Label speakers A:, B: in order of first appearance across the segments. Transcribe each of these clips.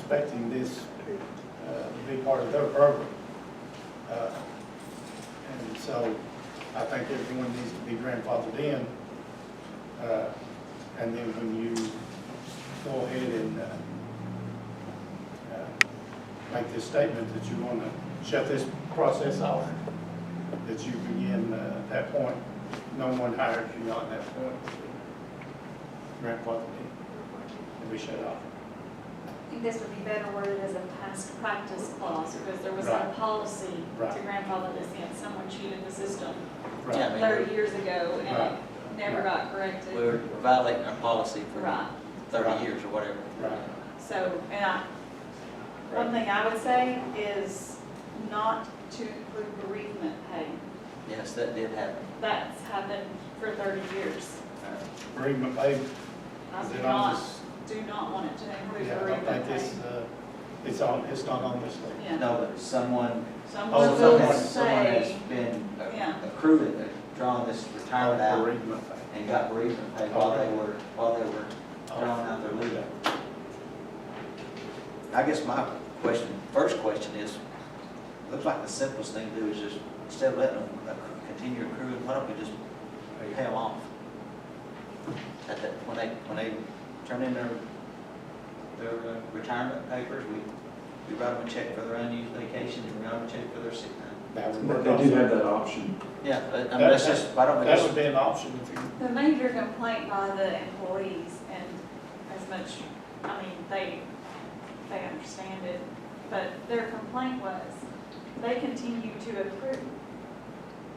A: expecting this uh, to be part of their program. Uh, And so I think everyone needs to be grandfathered in. Uh, And then when you go ahead and uh, uh, make this statement that you want to shut this process off, that you begin uh, at that point, no one hired you on that point. Grandfathered in, and we shut off.
B: I think this would be better worded as a past practice clause, because there was
A: Right.
B: a policy to
A: Right.
B: grandfather this in, someone cheated the system
A: Right.
C: Yeah, I mean,
B: thirty years ago, and
A: Right.
B: it never got
C: We're
B: corrected.
C: violating our policy for
B: Right,
C: thirty years or whatever.
A: Right.
B: so, and I, one thing I would say is not to include bereavement pay.
C: Yes, that did happen.
B: That's happened for thirty years.
A: Bereavement pay,
B: I
A: is
B: do
A: it on
B: not,
A: this?
B: do not want it to include
A: Yeah, I don't
B: bereavement
A: think
B: pay.
A: it's, uh, it's on, it's not on this list.
B: Yeah.
C: No, but someone,
B: Someone
C: oh,
B: will
C: someone, someone has
B: say,
C: been
B: Yeah.
C: accrued, uh, drawing this retirement out
A: Bereavement pay.
C: and got bereavement pay while they were, while they were drawing out their leave. I guess my question, first question is, looks like the simplest thing to do is just, instead of letting them accru- continue accruing, why don't we just pay them off? At that, when they, when they turn in their, their uh, retirement papers, we, we write them a check for their unused vacation and we write them a check for their sick time.
A: That would
D: But
A: work
D: they do have
A: also.
D: that option.
C: Yeah, but, I mean, that's just, why don't we
A: That would
C: just,
A: be an option if you,
B: the major complaint by the employees, and as much, I mean, they, they understand it, but their complaint was, they continue to accrue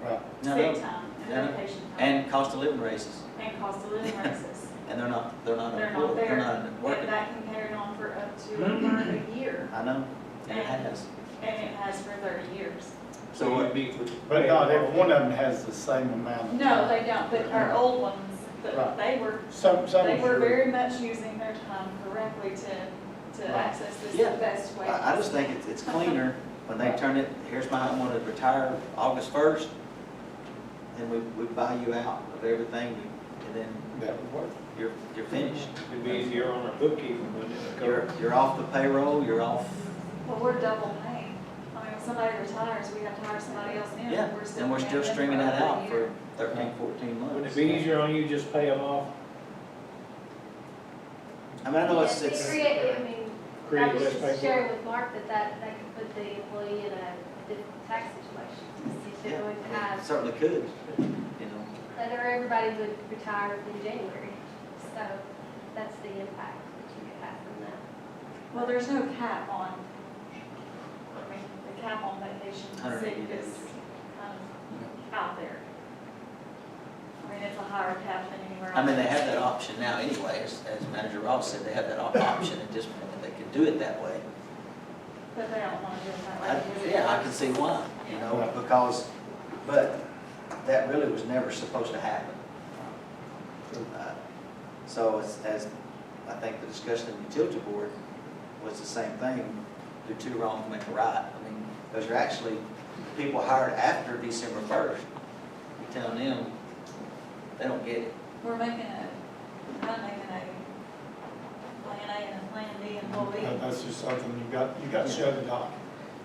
A: right,
C: no, no.
B: sick time
C: No, no.
B: and vacation time
C: and cost of living raises,
B: and cost of living raises.
C: and they're not, they're not
B: They're
C: employed,
B: not
C: they're
B: there,
C: not
B: and
C: working.
B: that can carry on for up to over a year,
C: I know, and it has.
B: and it has for thirty years.
C: So what,
A: but not every one of them has the same amount. of
B: No,
A: time.
B: they don't, but our
C: Uh-huh.
B: old ones, but
A: Right.
B: they were
A: Some, some.
B: They were
A: sure.
B: very much using their time correctly to, to
A: Right.
B: access this
C: Yeah.
B: the best way.
C: I, I just think it's, it's cleaner when they turn it, here's my, I'm gonna retire August first, then we, we buy you out of everything, and then
A: That would work.
C: you're, you're finished.
E: It'd be easier on our bookkeeping, wouldn't it?
C: You're, you're off the payroll, you're off,
B: Well, we're double paying. I mean, when somebody retires, we have to hire somebody else in.
C: yeah, and we're
B: paying
C: still
B: them
C: streaming
B: for
C: that
B: another
C: out
B: year.
C: for thirteen, fourteen months.
E: Wouldn't it be easier on you just pay them off,
C: I mean, I know it's,
F: Yes,
C: it's,
F: we create- I mean, I
E: create
F: was
E: less
F: just
E: paperwork?
F: sharing with Mark that that, that could put the employee in a different tax situation. If
C: yeah,
F: they would
C: it
F: have,
C: certainly could, you know,
F: that or everybody would retire in January. So that's the impact that you could have from that.
B: Well, there's no cap on, I mean, the cap on vacation
C: hundred
B: sick
C: eighty days.
B: is kind of out there. I mean, it's a higher cap than anywhere else.
C: I mean, they have that option now anyway, as, as Manager Ross said, they have that op- option, and just, they could do it that way.
B: But they don't want to do it that
C: I-
B: way. because it
C: Yeah, I
B: hurts.
C: can see why, you know, because, but that really was never supposed to happen. Uh, So as, as, I think the discussion in the utility board was the same thing, do two wrongs make a right. I mean, those are actually people hired after December first. You tell them, they don't get it.
B: We're making a, not making a plan A and a plan B and what
A: That-
B: we,
A: That's just something you got, you got to shut it off.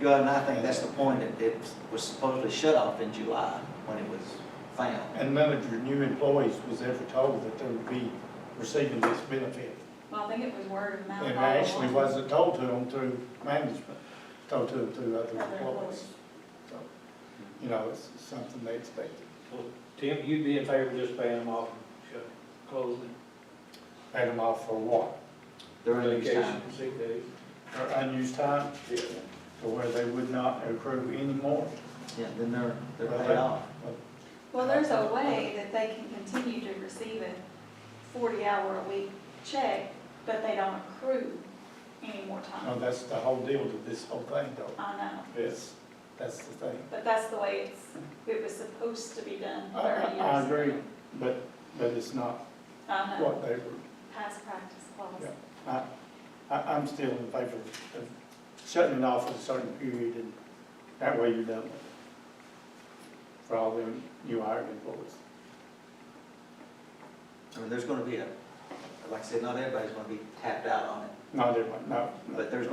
C: You know, and I think that's the point, it, it was supposedly shut off in July when it was found.
A: And none of your new employees was ever told that they would be receiving this benefit.
B: well, I think it was word of mouth.
A: And
B: all
A: I actually
B: along.
A: wasn't told to them through management, told to them through other
B: Other
A: employees.
B: employees.
A: So, You know, it's something they expected.
E: Well, Tim, you'd be in favor of just paying them off, and shut, closing,
A: Paid them off for what?
C: The release
E: vacation,
C: time.
E: sick days?
A: Their unused time,
E: Yeah.
A: to where they would not accrue any more.
C: Yeah, then they're, they're
A: Well,
C: paid
A: they-
C: off.
B: Well, there's a way that they can continue to receive a forty-hour-a-week check, but they don't accrue any more
A: No,
B: time.
A: that's the whole deal to this whole thing though.
B: I know,
A: Yes, that's the thing.
B: but that's the way it's, it was supposed to be done
A: I,
B: thirty
A: I-
B: years.
A: I
B: ago.
A: agree, but, but it's not
B: I know,
A: what they were,
B: past practice
A: Yeah.
B: clause.
A: I, I, I'm still in favor of shutting it off at a certain period and that way you're done with it. For all them new hired employees.
C: I mean, there's gonna be a, like I said, not everybody's gonna be tapped out on it,
A: Not everyone, no, no.
C: but there's